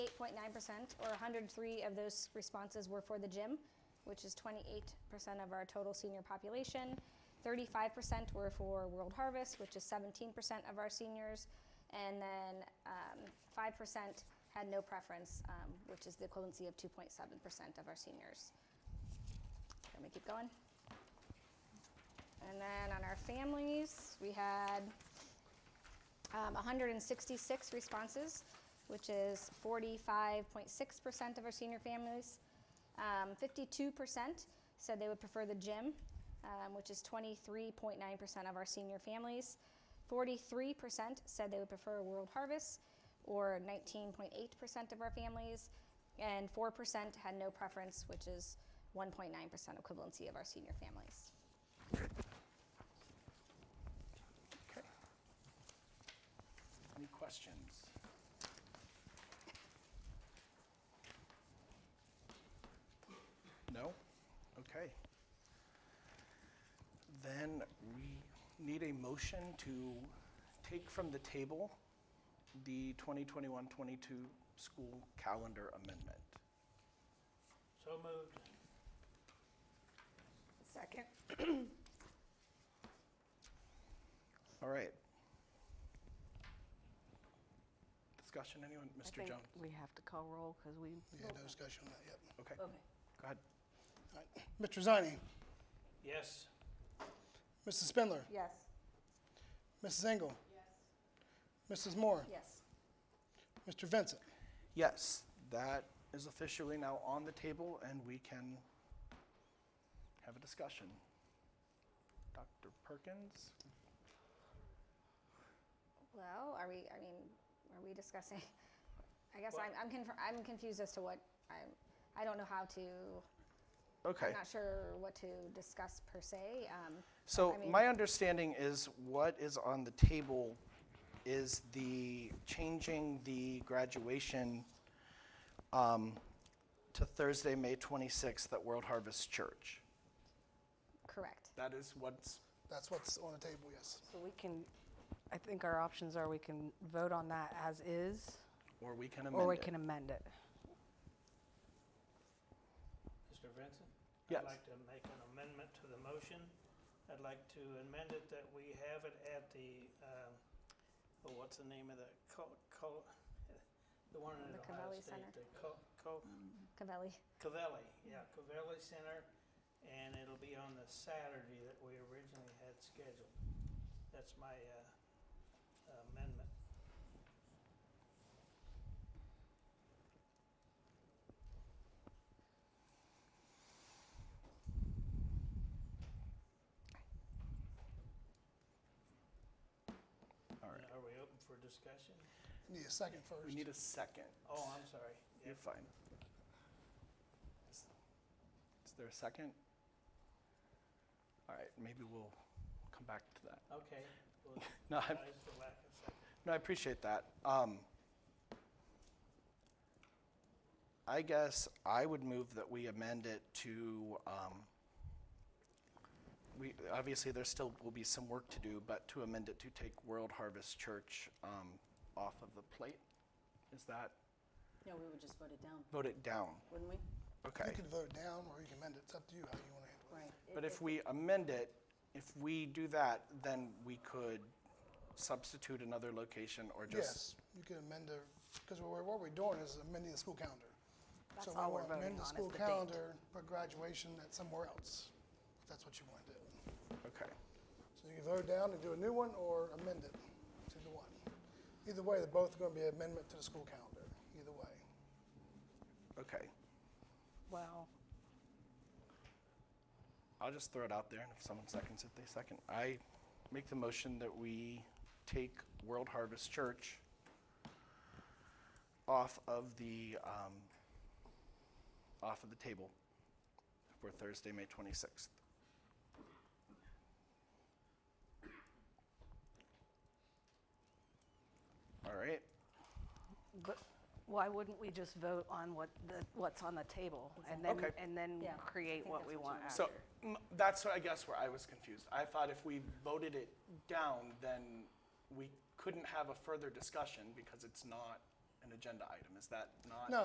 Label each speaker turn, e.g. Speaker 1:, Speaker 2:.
Speaker 1: 8.9%, or 103 of those responses were for the gym, which is 28% of our total senior population. 35% were for World Harvest, which is 17% of our seniors. And then um, 5% had no preference, um, which is the equivalency of 2.7% of our seniors. Let me keep going. And then on our families, we had um, 166 responses, which is 45.6% of our senior families. Um, 52% said they would prefer the gym, um, which is 23.9% of our senior families. 43% said they would prefer World Harvest, or 19.8% of our families. And 4% had no preference, which is 1.9% equivalency of our senior families.
Speaker 2: Any questions? No? Okay. Then we need a motion to take from the table the 2021-22 school calendar amendment.
Speaker 3: So moved.
Speaker 4: Second.
Speaker 2: All right. Discussion, anyone?
Speaker 5: I
Speaker 2: Mr.
Speaker 5: think
Speaker 2: Jones?
Speaker 5: We have to call roll because we.
Speaker 4: Yeah, no discussion on that, yep.
Speaker 2: Okay, go
Speaker 5: Okay.
Speaker 2: ahead.
Speaker 4: All right. Mr. Zani,
Speaker 3: Yes.
Speaker 4: Mrs. Spindler,
Speaker 5: Yes.
Speaker 4: Mrs. Engel. Mrs. Moore,
Speaker 1: Yes.
Speaker 4: Mr. Vincent.
Speaker 2: Yes, that is officially now on the table and we can have a discussion. Dr. Perkins?
Speaker 1: Well, are we, I mean, are we discussing? I guess
Speaker 3: Well-
Speaker 1: I'm, I'm, conf- I'm confused as to what I'm, I don't know how to, I'm
Speaker 2: Okay,
Speaker 1: not sure what to discuss per se. Um,
Speaker 2: so
Speaker 1: I mean-
Speaker 2: my understanding is what is on the table is the, changing the graduation um, to Thursday, May 26th at World Harvest Church.
Speaker 1: correct.
Speaker 2: That is what's,
Speaker 4: That's what's on the table, yes.
Speaker 5: So we can, I think our options are we can vote on that as is,
Speaker 2: or we can amend it.
Speaker 5: or we can amend it.
Speaker 3: Mr. Vincent?
Speaker 2: Yes.
Speaker 3: I'd like to make an amendment to the motion. I'd like to amend it that we have it at the, um, oh, what's the name of the, co- co- the one in
Speaker 1: The
Speaker 3: Ohio
Speaker 1: Covelli
Speaker 3: State?
Speaker 1: Center.
Speaker 3: The co- co-
Speaker 1: Cavelli.
Speaker 3: Covelli, yeah, Covelli Center, and it'll be on the Saturday that we originally had scheduled. That's my uh, amendment.
Speaker 2: All right,
Speaker 3: Are we open for discussion?
Speaker 4: Need a second first.
Speaker 2: we need a second.
Speaker 3: Oh, I'm sorry.
Speaker 2: You're fine. Is is there a second? All right, maybe we'll come back to that.
Speaker 3: Okay. well,
Speaker 2: No, I'm-
Speaker 3: that is the lack of second.
Speaker 2: No, I appreciate that. Um, I guess I would move that we amend it to, um, we, obviously, there still will be some work to do, but to amend it to take World Harvest Church um, off of the plate. Is that,
Speaker 6: No, we would just vote it down,
Speaker 2: vote it down?
Speaker 6: wouldn't we?
Speaker 2: Okay.
Speaker 4: You can vote down or you can amend it. It's up to you how you want to handle it.
Speaker 6: Right.
Speaker 2: But if we amend it, if we do that, then we could substitute another location or just.
Speaker 4: Yes, you can amend the, because what we're doing is amending the school calendar.
Speaker 5: That's all we're
Speaker 4: So we want to amend
Speaker 5: voting
Speaker 4: the
Speaker 5: on is
Speaker 4: school
Speaker 5: the date.
Speaker 4: calendar for graduation at somewhere else, if that's what you want to do.
Speaker 2: Okay.
Speaker 4: So you can vote down and do a new one or amend it to the one. Either way, they're both going to be an amendment to the school calendar, either way.
Speaker 2: Okay.
Speaker 5: Well,
Speaker 2: I'll just throw it out there, and if someone seconds it, they second. I make the motion that we take World Harvest Church off of the um, off of the table for Thursday, May twenty sixth. All right.
Speaker 5: but why wouldn't we just vote on what the, what's on the table? And then,
Speaker 2: Okay.
Speaker 5: and then
Speaker 6: Yeah, I
Speaker 5: create
Speaker 6: think
Speaker 5: what
Speaker 6: that's
Speaker 5: we
Speaker 6: what you
Speaker 5: want
Speaker 6: want.
Speaker 5: after?
Speaker 2: So m- that's what I guess where I was confused. I thought if we voted it down, then we couldn't have a further discussion because it's not an agenda item, is that not?
Speaker 4: No,